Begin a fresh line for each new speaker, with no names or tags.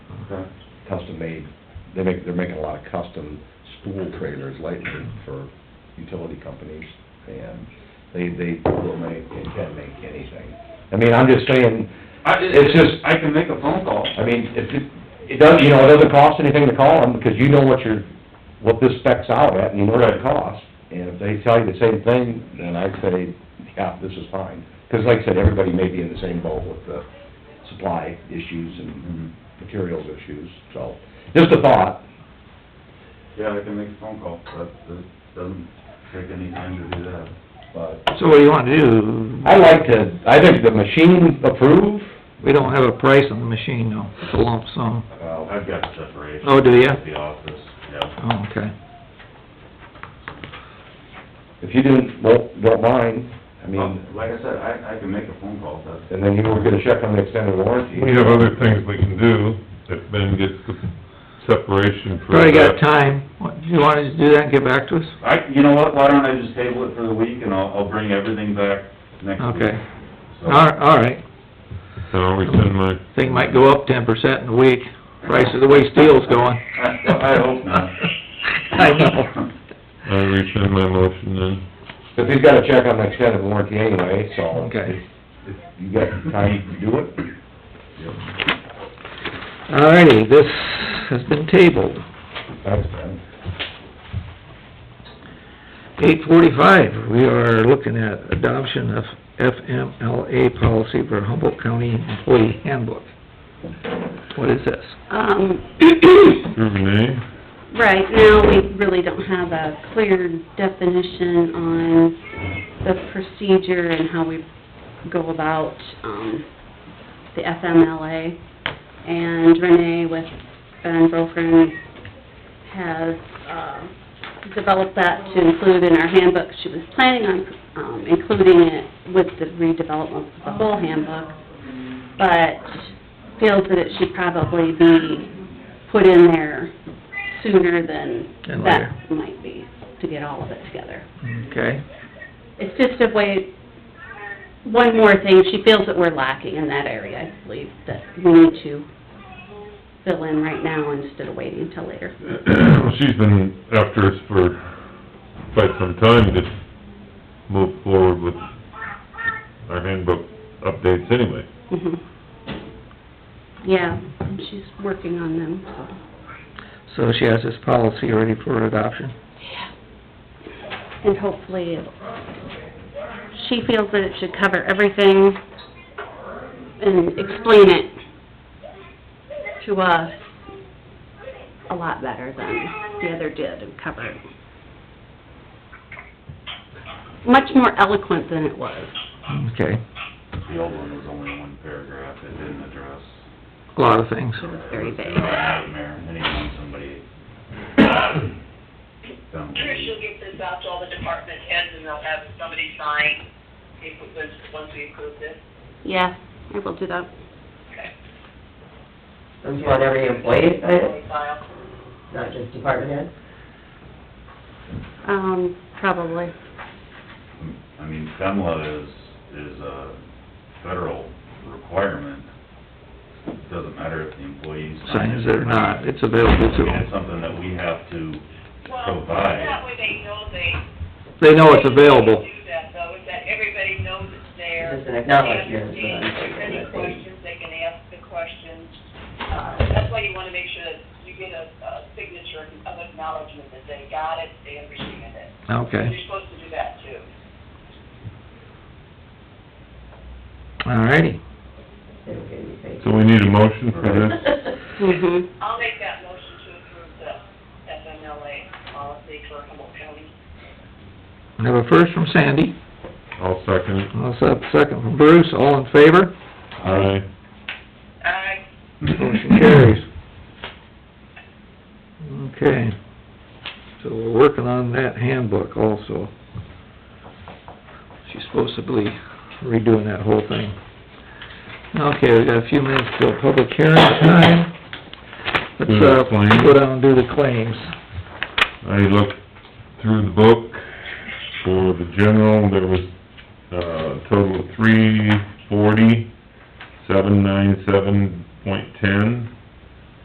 Okay.
custom-made, they make, they're making a lot of custom spool trailers lately for utility companies, and they, they will make, they can make anything. I mean, I'm just saying,
I,
It's just-
I can make a phone call.
I mean, if, it- it doesn't, you know, it doesn't cost anything to call them, because you know what your, what this specs out at, and you know what it costs. And if they tell you the same thing, then I'd say, yeah, this is fine. Because like I said, everybody may be in the same boat with the supply issues and materials issues, so, just a thought.
Yeah, I can make a phone call, that, that doesn't take any time to do that.
But
So what do you want to do?
I like to, I think the machine approve,
We don't have a price on the machine, though, it's a lump sum.
well,
I've got separation.
Oh, do ya?
At the office, yeah.
Oh, okay.
if you didn't, won't, don't mind, I
Oh.
mean,
Um, Like I said, I, I can make a phone call, that's,
and then you were gonna check on the extended warranty.
We have other things we can do, if Ben gets the separation for
Already got
that.
time. What, do you want to do that and get back to us?
I, you know what, why don't I just table it for the week and I'll, I'll bring everything back next week.
Okay.
So-
All, all right.
So I'll resend my,
Thing might go up ten percent in a week, price of the way steel's going.
I hope not.
I know.
I resend my motion then.
But he's gotta check on the extended warranty anyway, so.
Okay.
If You got time to do it?
All righty, this has been tabled.
Thanks, Ben.
Eight forty-five, we are looking at adoption of FMLA policy for Humboldt County Employee Handbook. What is this?
Um,
Renee?
right, now, we really don't have a clear definition on the procedure and how we go about, um, the FMLA. And Renee with Ben Brokern has, uh, developed that to include in our handbook. She was planning on, um, including it with the redevelopment of the whole handbook, but feels that it should probably be put in there sooner than
And later.
that might be, to get all of it together.
Okay,
It's just a way, one more thing, she feels that we're lacking in that area, I believe, that we need to fill in right now instead of waiting until later.
She's been after us for quite some time to move forward with our handbook updates anyway.
Mhm. Yeah, and she's working on them,
so
so.
she has this policy ready for adoption.
And hopefully, it- she feels that it should cover everything and explain it to us a lot better than the other did and cover it. Much more eloquent than it was.
Okay,
The old one was only one paragraph, it didn't address.
a lot of things.
It was very
It was
vague.
a nightmare, anytime somebody. found
Sure,
somebody-
she'll get this out to all the department heads and they'll have somebody sign if, it was- once we approve this.
Yeah, I will do that.
Okay.
Don't you want every employee to sign it,
File.
not just department head?
Um, probably.
I mean, FEMLA is, is a federal requirement. It Doesn't matter if the employees sign
Signs
it.
that are not, it's available
I
to
mean, it's
them.
something that we have to
Well,
Provide.
that way they know they.
They know it's available.
Do that though, is that everybody knows it's there.
Just an acknowledgement,
They understand, if there's any
but-
questions, they can ask the questions. Uh, That's why you wanna make sure that you get a, a signature of acknowledgement that they got it, they understand it.
Okay,
You're supposed to do that too.
all righty.
They don't get any pay.
So we need a motion for this?
Mm-hmm.
I'll make that motion to approve the FMLA policy for Humboldt County.
We have a first from Sandy,
I'll second it.
and also a second from Bruce, all in favor?
Aye.
Aye.
Motion carries. Okay, so we're working on that handbook also. She's supposed to be redoing that whole thing. Okay, we got a few minutes till public hearing time. Let's,
Do the
uh,
claims.
go down and do the claims.
I looked through the book for the general, there was, uh, total of three forty, seven nine seven point ten.